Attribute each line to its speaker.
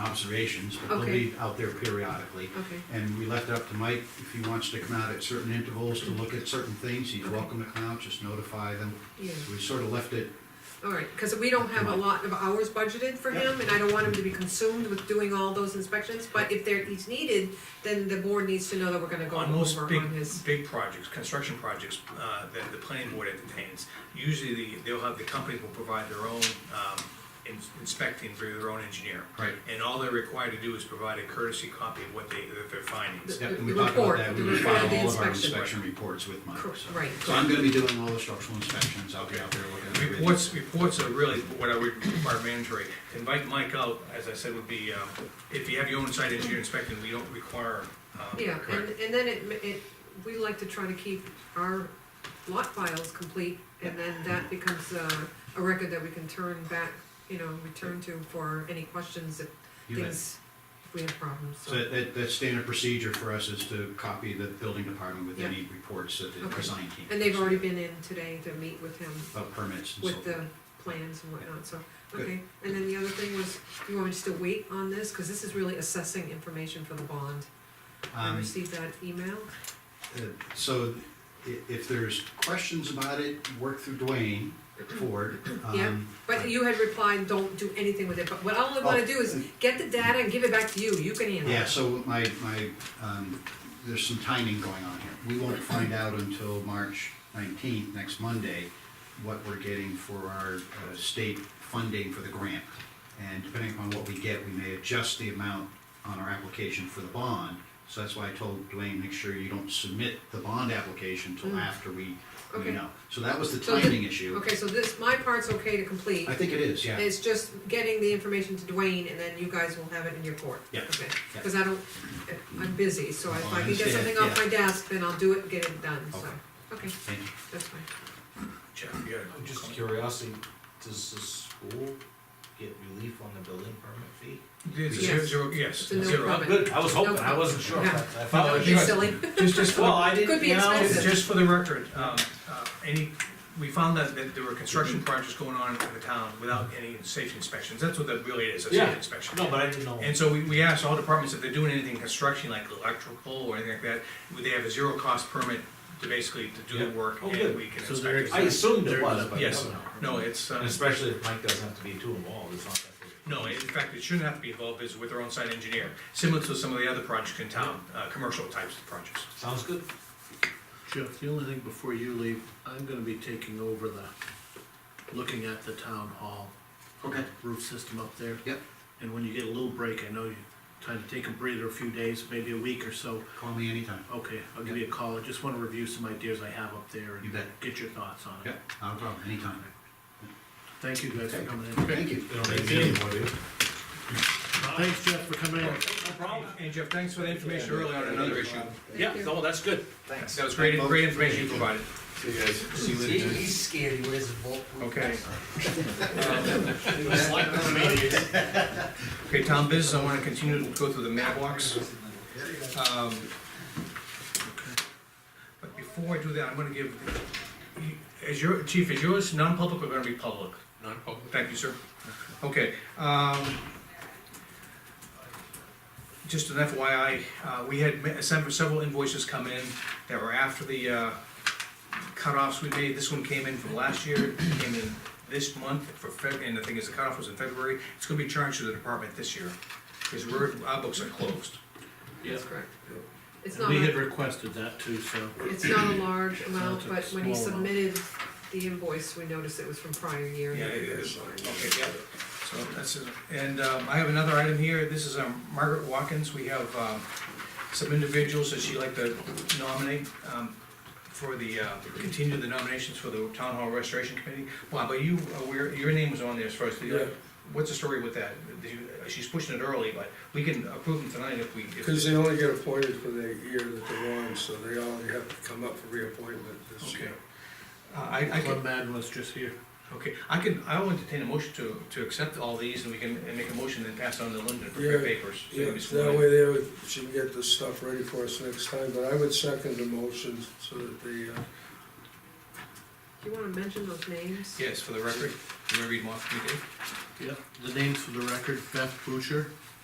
Speaker 1: observations, but they'll
Speaker 2: Okay.
Speaker 1: be out there periodically.
Speaker 2: Okay.
Speaker 1: And we left it up to Mike, if he wants to come out at certain intervals to look at certain things, he's welcome to come out, just notify them.
Speaker 2: Yeah.
Speaker 1: So we sort of left it,
Speaker 2: All right, because we don't have a lot of hours budgeted for him, and I don't want him to be consumed with doing all those inspections, but if there, he's needed, then the board needs to know that we're gonna go
Speaker 3: On most
Speaker 2: over
Speaker 3: big,
Speaker 2: on his.
Speaker 3: big projects, construction projects, uh, that the planning board entertains, usually the, they'll have, the companies will provide their own, um, ins- inspecting for their own engineer.
Speaker 1: Right.
Speaker 3: And all they're required to do is provide a courtesy copy of what they, of their findings.
Speaker 1: yeah,
Speaker 2: The-
Speaker 1: and we
Speaker 2: the
Speaker 1: talked about
Speaker 2: report,
Speaker 1: that, we
Speaker 2: the
Speaker 1: would
Speaker 2: report of
Speaker 1: file
Speaker 2: the
Speaker 1: all of our
Speaker 2: inspection.
Speaker 1: inspection reports with Mike,
Speaker 2: Cor-
Speaker 1: so.
Speaker 2: right.
Speaker 1: So I'm gonna be doing all the structural inspections, I'll be out there looking at everything.
Speaker 3: Reports, reports are really what I would require mandatory. To Invite Mike out, as I said, would be, um, if you have your own site engineer inspecting, we don't require. um,
Speaker 2: Yeah, and,
Speaker 3: correct.
Speaker 2: and then it, ma- it, we like to try to keep our lot files complete, and then that becomes a, a record that we can turn back, you know, return to for any questions if
Speaker 1: You bet.
Speaker 2: things, if we have problems,
Speaker 1: So that- that, that's standard procedure for us is to copy the building department with
Speaker 2: Yeah.
Speaker 1: any reports that the
Speaker 2: Okay.
Speaker 1: design team.
Speaker 2: And they've
Speaker 1: does.
Speaker 2: already been in today to meet with him
Speaker 1: About permits and so
Speaker 2: with
Speaker 1: forth.
Speaker 2: the plans and whatnot, so,
Speaker 1: Good.
Speaker 2: okay. And then the other thing was, you want me just to wait on this, cause this is really assessing information for the bond. I
Speaker 1: Um,
Speaker 2: received that email,
Speaker 1: Uh, So i- if there's questions about it, work through Dwayne Ford. um,
Speaker 2: Yeah, but you had replied, don't do anything with it, but what I only wanna
Speaker 1: Oh,
Speaker 2: do is
Speaker 1: uh,
Speaker 2: get the data and give it back to you, you can handle it.
Speaker 1: Yeah, so my, my, um, there's some timing going on here. We won't find out until March nineteenth, next Monday, what we're getting for our uh, state funding for the grant. And depending upon what we get, we may adjust the amount on our application for the bond. So that's why I told Dwayne, make sure you don't submit the bond application until
Speaker 2: Mm.
Speaker 1: after we, we
Speaker 2: Okay.
Speaker 1: know. So that was the
Speaker 2: So the-
Speaker 1: timing issue.
Speaker 2: Okay, so this, my part's okay to complete,
Speaker 1: I think it is, yeah.
Speaker 2: it's just getting the information to Dwayne, and then you guys will have it in your court.
Speaker 1: Yeah,
Speaker 2: Okay,
Speaker 1: yeah.
Speaker 2: cause I don't, I'm busy, so if
Speaker 1: Oh,
Speaker 2: I
Speaker 1: I
Speaker 2: can get
Speaker 1: understand,
Speaker 2: something off
Speaker 1: yeah.
Speaker 2: my desk, then I'll do it and get it done, so,
Speaker 1: Okay.
Speaker 2: okay,
Speaker 1: Thank you.
Speaker 2: that's fine.
Speaker 3: Jeff, you got a
Speaker 4: I'm just
Speaker 3: comment?
Speaker 4: curiosity, does the school get relief on the building permit fee?
Speaker 3: It's a
Speaker 2: Yes.
Speaker 3: zero- yes,
Speaker 2: It's a no
Speaker 3: zero.
Speaker 2: problem.
Speaker 4: Good, I was hoping, I wasn't sure. I
Speaker 2: Yeah.
Speaker 4: thought I
Speaker 3: No,
Speaker 4: was
Speaker 2: You're
Speaker 3: Yes.
Speaker 4: sure.
Speaker 2: silly.
Speaker 3: Just, just for
Speaker 4: Well, I
Speaker 2: Could
Speaker 4: didn't,
Speaker 2: be
Speaker 4: you know,
Speaker 2: expensive.
Speaker 3: Just just for the record, um, uh, any, we found that, that there were
Speaker 4: Mm-hmm.
Speaker 3: construction projects going on in the town without any safety inspections, that's what that really is, a
Speaker 4: Yeah.
Speaker 3: safety inspection.
Speaker 4: no, but I didn't know.
Speaker 3: And so we, we asked all departments if they're doing anything construction, like electrical or anything like that, would they have a zero cost permit to basically to do
Speaker 4: Yeah.
Speaker 3: the work
Speaker 4: Oh,
Speaker 3: and
Speaker 4: good.
Speaker 3: we can
Speaker 5: So they're
Speaker 3: inspect
Speaker 4: I
Speaker 3: it.
Speaker 5: exempt.
Speaker 4: assumed it was, but I
Speaker 3: Yes,
Speaker 4: don't know.
Speaker 3: no, it's,
Speaker 4: And
Speaker 3: uh,
Speaker 4: especially if Mike doesn't have to be too involved, it's not that.
Speaker 3: no, in fact, it shouldn't have to be involved, it's with their own site engineer, similar to some of the other projects in town, uh, commercial types of projects.
Speaker 4: Sounds good.
Speaker 5: Jeff, the only thing before you leave, I'm gonna be taking over the, looking at the town hall
Speaker 1: Okay.
Speaker 5: roof system up there.
Speaker 1: Yep,
Speaker 5: And when you get a little break, I know you, time to take a breather a few days, maybe a week or so.
Speaker 1: call me anytime.
Speaker 5: Okay, I'll give you a call, I just wanna review some ideas I have up there
Speaker 1: You
Speaker 5: and
Speaker 1: bet.
Speaker 5: get your thoughts on it.
Speaker 1: Yep, not a problem, anytime.
Speaker 5: Thank you guys for coming in.
Speaker 1: Thank you.
Speaker 4: They don't make me anymore, do they?
Speaker 5: Thanks, Jeff, for coming in.
Speaker 4: No problem.
Speaker 3: And Jeff, thanks for the information earlier on another issue.
Speaker 4: Yeah, no, that's good. Thanks.
Speaker 3: That was great, great information you provided.
Speaker 4: See you
Speaker 6: He- He's scared, he wears a bulletproof.
Speaker 3: Okay.
Speaker 4: It's like the media.
Speaker 3: Okay, Tom business, I wanna continue to go through the mailbox. Um, But before I do that, I'm gonna give, is your, chief, is yours non-public or gonna be public?
Speaker 4: Non-public.
Speaker 3: Thank you, sir. Okay, um, just an FYI, uh, we had ma- sent several invoices come in that were after the, uh, cutoffs we made. This one came in from last year, came in this month for Feb, and the thing is, the cutoff was in February. It's gonna be charged to the department this year, because we're, our books are closed.
Speaker 2: That's correct. It's not,
Speaker 5: We had
Speaker 2: a-
Speaker 5: requested that too, so.
Speaker 2: it's not a large amount,
Speaker 5: It's a
Speaker 2: but when he
Speaker 5: small amount.
Speaker 2: submitted the invoice, we noticed it was from prior year.
Speaker 3: Yeah, it is. Okay, yeah. So that's, it. and um, I have another item here, this is um, Margaret Watkins, we have um, some individuals that she'd like to nominate um, for the, uh, continue the nominations for the Town Hall Restoration Committee. Bob, are you aware, your name was on there as first, what's the story with that? Did you- She's pushing it early, but we can approve them tonight if we, if-
Speaker 7: Because they only get appointed for the year that they're on, so they all have to come up for reappointment this
Speaker 3: okay.
Speaker 7: year.
Speaker 3: Uh, I, I can,
Speaker 5: Club Mad was just here.
Speaker 3: okay, I can, I will entertain a motion to, to accept all these, and we can and make a motion and pass it on to Linda to prepare
Speaker 7: Yeah,
Speaker 3: papers. so you
Speaker 7: Yeah,
Speaker 3: can be sworn in.
Speaker 7: that way they would, she can get the stuff ready for us next time, but I would second the motion so that the, uh,
Speaker 2: Do you wanna mention those names?
Speaker 3: Yes, for the record, you wanna read them off, you did?
Speaker 5: Yep, the names for the record, Beth Boucher,